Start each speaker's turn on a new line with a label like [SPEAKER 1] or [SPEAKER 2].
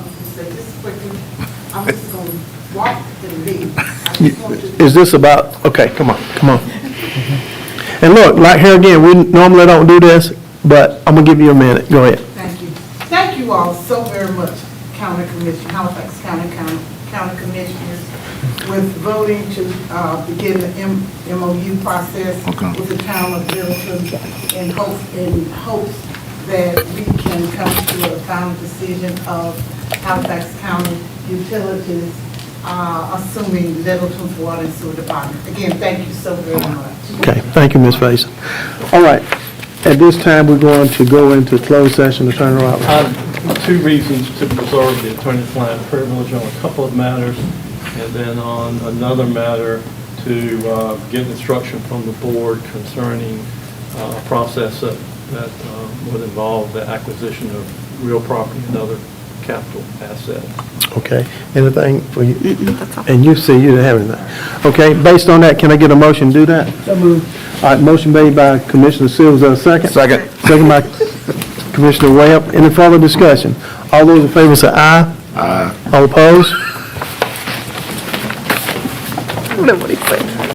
[SPEAKER 1] say this quickly, I'm just going to walk and leave. I just want to-
[SPEAKER 2] Is this about, okay, come on, come on. And look, like here again, we normally don't do this, but I'm gonna give you a minute, go ahead.
[SPEAKER 1] Thank you. Thank you all so very much, County Commission, Halifax County Coun- County Commissioners, with voting to uh, begin the M- MOU process
[SPEAKER 3] Okay.
[SPEAKER 1] with the town of Littleton in hopes, in hopes that we can come to a final decision of Halifax County Utilities, uh, assuming Littleton's Water and Sewer Department. Again, thank you so very much.
[SPEAKER 2] Okay, thank you, Ms. Faison. All right, at this time, we're going to go into closed session, Attorney Roberts.
[SPEAKER 4] Um, Two reasons to preserve the attorney-client privilege on a couple of matters, and then on another matter to uh, get instruction from the board concerning uh, a process that that um, would involve the acquisition of real property and other capital assets.
[SPEAKER 2] Okay, anything for you? And you see, you didn't have anything. Okay, based on that, can I get a motion to do that? So moved. All right, motion made by Commissioner Sills, a second?
[SPEAKER 3] Second.
[SPEAKER 2] Second by Commissioner Webb. Any further discussion? All those in favor say aye. Aye. All opposed?